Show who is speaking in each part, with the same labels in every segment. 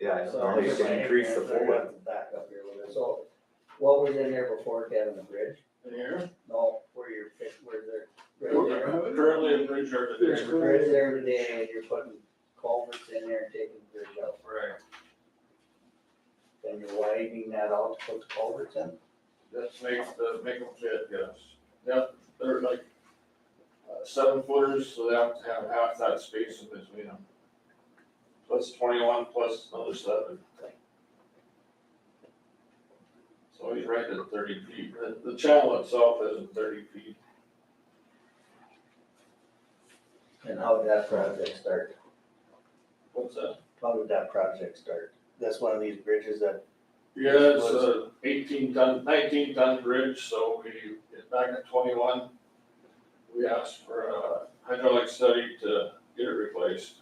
Speaker 1: Yeah,
Speaker 2: So
Speaker 1: normally you
Speaker 2: it's
Speaker 1: can
Speaker 2: like,
Speaker 1: increase the
Speaker 2: they're gonna
Speaker 1: full.
Speaker 2: have to Back up here a little bit. So what was in there before, Kevin, the bridge?
Speaker 3: In here?
Speaker 2: No, where you're, fix- where they're. right there.
Speaker 3: Currently, a bridge over
Speaker 2: There's
Speaker 3: there.
Speaker 2: a bridge there today, and you're putting culverts in there and taking the bridge out.
Speaker 3: Right,
Speaker 2: Then you're widening that out to put the culverts in.
Speaker 3: this makes the, make them fit, yes. Yep, they're like uh, seven footers, so they have to have half that space in between them. Plus twenty-one, plus another seven. So he's right at thirty feet. The, the channel itself isn't thirty feet.
Speaker 2: And how did that project start?
Speaker 3: What's that?
Speaker 2: How did that project start? That's one of these bridges that,
Speaker 3: Yeah, it's a eighteen ton, nineteen ton bridge, so we, back in twenty-one, we asked for a hydraulic study to get it replaced.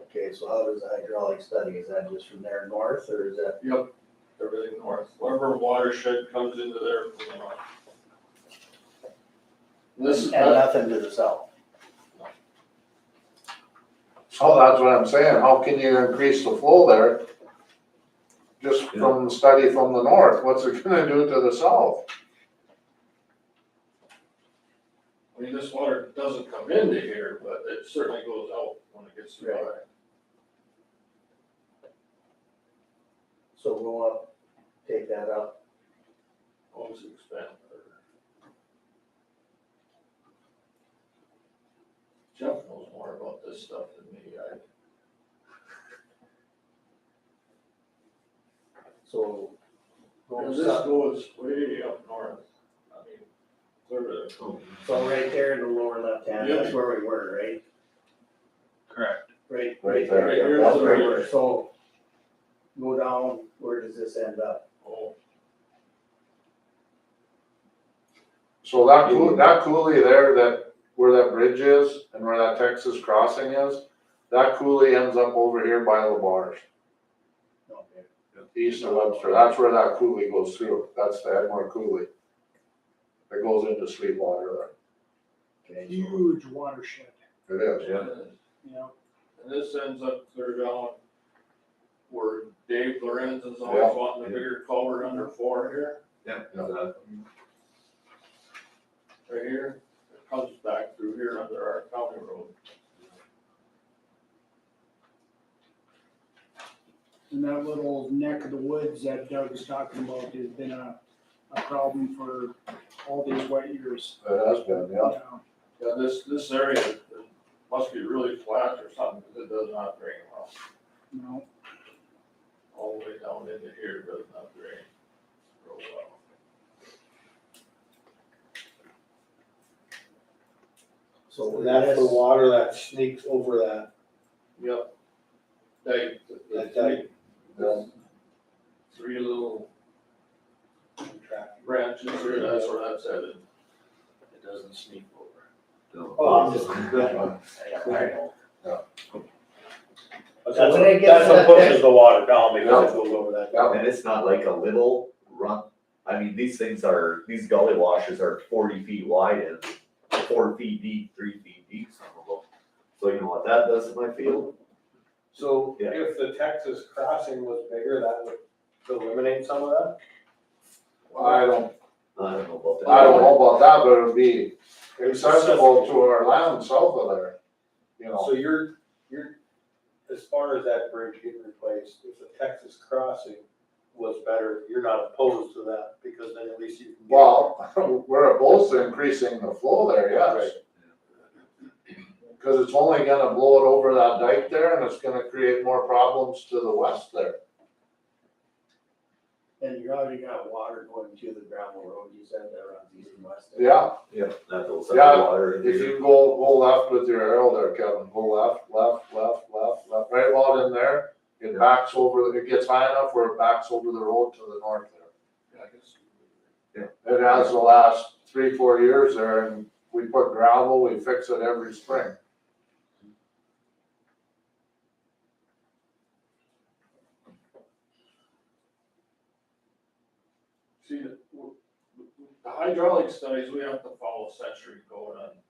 Speaker 2: okay, so how does the hydraulic study, is that just from there north, or is that,
Speaker 3: Yep. Everything north, whatever watershed comes into there from the north. This is,
Speaker 2: and nothing to the south?
Speaker 4: So that's what I'm saying, how can you increase the flow there? Just from study from the north, what's it gonna do to the south?
Speaker 3: I mean, this water doesn't come into here, but it certainly goes out when it gets to the
Speaker 2: Right. So go up, take that up,
Speaker 3: Always expand. further. Jeff knows more about this stuff than me, I,
Speaker 2: so. go
Speaker 3: Cause this
Speaker 2: south.
Speaker 3: goes way up north, I mean, clear to.
Speaker 2: So right there in the lower left hand, that's where we were, right?
Speaker 5: Correct.
Speaker 2: Right,
Speaker 4: Right
Speaker 2: right there,
Speaker 3: there, yeah.
Speaker 2: that's where we were, so. Go down, where does this end up?
Speaker 3: Oh,
Speaker 4: So
Speaker 6: Mm.
Speaker 4: that cou- that coulee there, that, where that bridge is and where that Texas crossing is, that coulee ends up over here by the bars,
Speaker 2: Okay.
Speaker 4: east of Webster, that's where that coulee goes through, that's the Edmore coulee. It goes into Sweetwater
Speaker 2: Okay, so-
Speaker 5: Huge watershed,
Speaker 4: there, it is.
Speaker 1: Yeah.
Speaker 5: you know,
Speaker 3: And this ends up clear down where Dave Lorenz is
Speaker 4: Yeah.
Speaker 3: always wanting a bigger culvert under four here,
Speaker 1: Uh,
Speaker 3: right here. It comes back through here under our county road.
Speaker 5: and that little neck of the woods that Doug was talking about has been a, a problem for all these wet years.
Speaker 4: It has been,
Speaker 5: you
Speaker 4: yeah.
Speaker 5: know.
Speaker 3: Yeah, this, this area must be really flat or something, because it does not drain well.
Speaker 5: You know,
Speaker 3: All the way down into here, it does not drain real well.
Speaker 2: So
Speaker 6: That's the water that sneaks over that,
Speaker 3: Yep. They, the
Speaker 6: that
Speaker 3: three,
Speaker 6: dike
Speaker 3: three little
Speaker 6: track.
Speaker 3: branches here, that's where that's headed.
Speaker 6: It doesn't sneak over.
Speaker 1: no.
Speaker 6: Oh, I'm just-
Speaker 2: So when it gets
Speaker 6: That's what
Speaker 2: to that-
Speaker 6: pushes the water down because it goes over that.
Speaker 4: Yeah.
Speaker 1: And it's not like a little run, I mean, these things are, these gully washes are forty feet wide and four feet deep, three feet deep, some of them. So you know what that does to my field?
Speaker 6: So
Speaker 1: Yeah.
Speaker 6: if the Texas crossing was bigger, that would eliminate some of that?
Speaker 4: I don't
Speaker 1: I don't know about that.
Speaker 4: I don't know about that, but it'd be accessible to our land south of there, you know.
Speaker 6: So you're, you're, as far as that bridge getting replaced, if the Texas crossing was better, you're not opposed to that because then at least you can. get-
Speaker 4: Well, we're opposed to increasing the flow there, yes. Cause it's only gonna blow it over that dike there and it's gonna create more problems to the west there.
Speaker 2: And you already got water going to the gravel road, you said that runs east and west.
Speaker 4: Yeah,
Speaker 1: Yeah, that goes
Speaker 4: Yeah,
Speaker 1: under water.
Speaker 4: if you go, go left with your arrow there, Kevin, go left, left, left, left, left, right about in there. It backs over, it gets high enough where it backs over the road to the north there.
Speaker 3: Yeah, I guess.
Speaker 4: It has the last three, four years there and we put gravel, we fix it every spring.
Speaker 3: See, the, the hydraulic studies, we have to follow century code on